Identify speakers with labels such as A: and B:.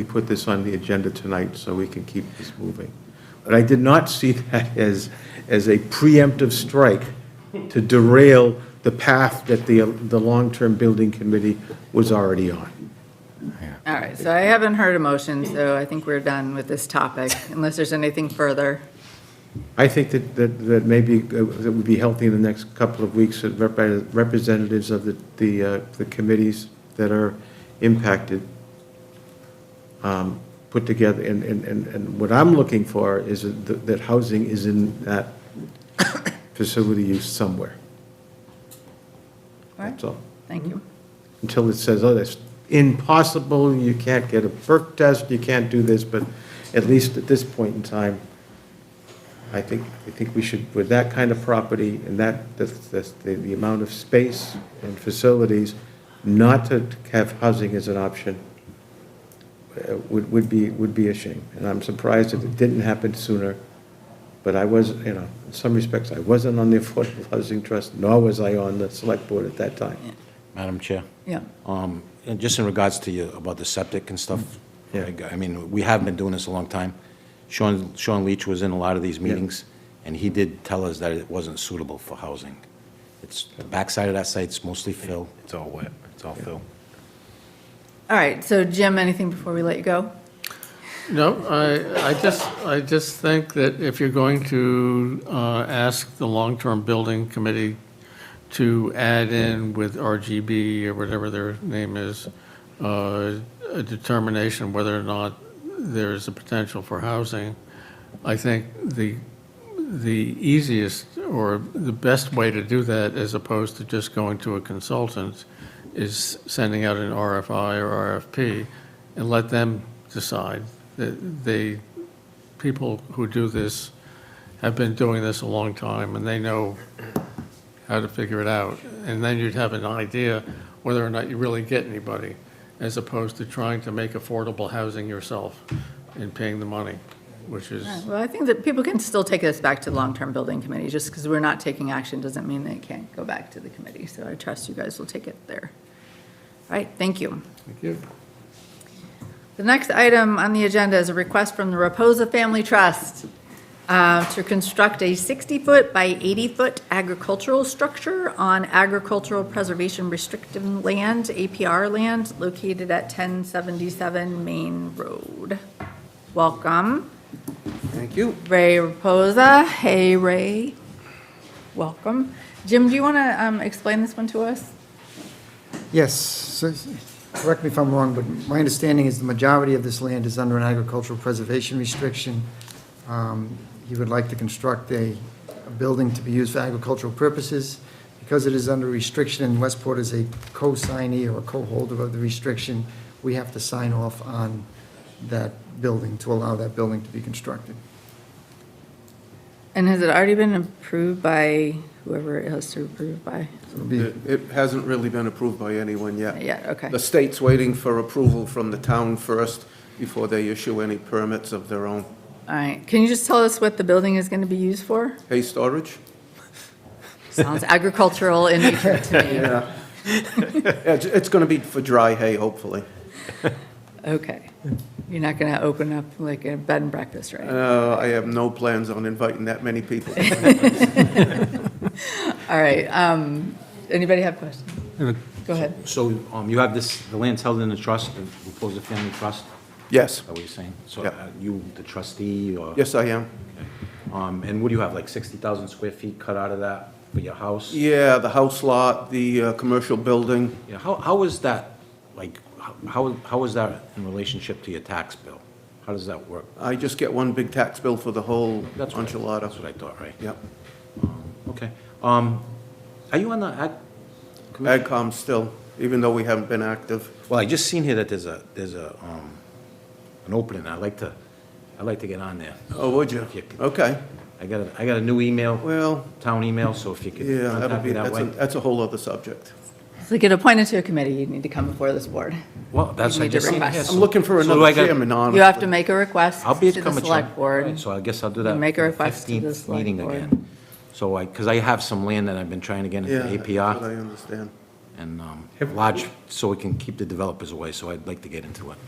A: we put this on the agenda tonight so we can keep this moving. But I did not see that as, as a preemptive strike to derail the path that the, the long-term building committee was already on.
B: All right, so I haven't heard a motion, so I think we're done with this topic, unless there's anything further.
A: I think that, that, that maybe uh, it would be healthy in the next couple of weeks, that rep- representatives of the, the, uh, the committees that are impacted um, put together, and, and, and- and what I'm looking for is that, that housing is in that facility use somewhere.
B: All right.
A: That's all.
B: Thank you.
A: Until it says, oh, that's impossible, you can't get a perk test, you can't do this, but at least at this point in time, I think, I think we should, with that kind of property and that, that's, that's the, the amount of space and facilities, not to have housing as an option uh, would, would be, would be a shame. And I'm surprised that it didn't happen sooner, but I was, you know, in some respects, I wasn't on the Affordable Housing Trust, nor was I on the Select Board at that time.
C: Madam Chair,
B: Yeah,
C: um, and just in regards to you about the septic and stuff,
A: Yeah.
C: I g- I mean, we have been doing this a long time. Sean, Sean Leach was in a lot of these meetings, and he did tell us that it wasn't suitable for housing. It's, the backside of that site's mostly fill. It's all wet, it's all fill.
B: all right, so Jim, anything before we let you go?
D: No, I, I just, I just think that if you're going to uh, ask the long-term building committee to add in with RGB or whatever their name is, uh, a determination whether or not there's a potential for housing, I think the, the easiest or the best way to do that, as opposed to just going to a consultant, is sending out an RFI or RFP and let them decide. The- They, people who do this have been doing this a long time, and they know how to figure it out. And then you'd have an idea whether or not you really get anybody, as opposed to trying to make affordable housing yourself and paying the money, which is.
B: All right, Well, I think that people can still take this back to the long-term building committee, just because we're not taking action doesn't mean they can't go back to the committee, so I trust you guys will take it there. All right, thank you.
D: Thank you.
B: The next item on the agenda is a request from the Reposa Family Trust uh, to construct a 60-foot by 80-foot agricultural structure on agricultural preservation restricted land, APR land, located at 1077 Main Road. Welcome,
E: Thank you.
B: Ray Reposa. Hey, Ray. Welcome. Jim, do you want to explain this one to us?
E: Yes, so- correct me if I'm wrong, but my understanding is the majority of this land is under an agricultural preservation restriction. Um, He would like to construct a, a building to be used for agricultural purposes. Because it is under restriction and Westport is a co-signee or a co-holder of the restriction, we have to sign off on that building to allow that building to be constructed.
B: And has it already been approved by whoever it has to approve by?
E: So it'll be,
F: It it hasn't really been approved by anyone yet.
B: Yeah, okay.
F: The state's waiting for approval from the town first before they issue any permits of their own.
B: All right, can you just tell us what the building is going to be used for?
F: Hay storage?
B: Sounds agricultural in nature to
F: Yeah. It's, it's gonna be for dry hay, hopefully.
B: me. Okay. You're not going to open up like a bed and breakfast, right?
F: Uh, I have no plans on inviting that many people.
B: All right, um, anybody have questions? Go ahead.
C: So um, you have this, the land's held in the trust, the Reposa Family Trust,
F: Yes,
C: is that what you're saying? So
F: Yeah.
C: uh, you, the trustee, or?
F: yes, I am.
C: Um, And what do you have, like 60,000 square feet cut out of that for your house?
F: Yeah, the house lot, the uh, commercial building.
C: Yeah, how, how is that, like, how- how, how is that in relationship to your tax bill? How does that work?
F: I just get one big tax bill for the whole
C: That's what I-
F: enchilada.
C: That's what I thought, right?
F: Yep.
C: Okay. Um, Are you on the, ag- commission?
F: AgCom still, even though we haven't been active.
C: well, I just seen here that there's a, there's a, um, an opening. I'd like to, I'd like to get on there.
F: Oh, would you?
C: Yeah.
F: Okay,
C: I got a, I got a new email,
F: well,
C: town email, so if you could
F: yeah, that'd
C: contact
F: be,
C: me that
F: that's a,
C: way.
F: that's a whole other subject.
B: To get appointed to a committee, you need to come before this board.
C: Well, that's
B: You
C: what I
B: need to
C: just seen
B: request.
C: here.
F: I'm looking for
C: So do
F: another
C: I got-
F: chairman, honestly.
B: You have to make a request
C: I'll be
B: to
C: at
B: the
C: Cummins.
B: select board.
C: So I guess I'll do that.
B: Make a
C: for the
B: request to the
C: 15th
B: select
C: meeting
B: board.
C: again. So I, because I have some land that I've been trying to get into
F: Yeah, that's what I
C: APR
F: understand.
C: and um, large, so we can keep the developers away, so I'd like to get into it.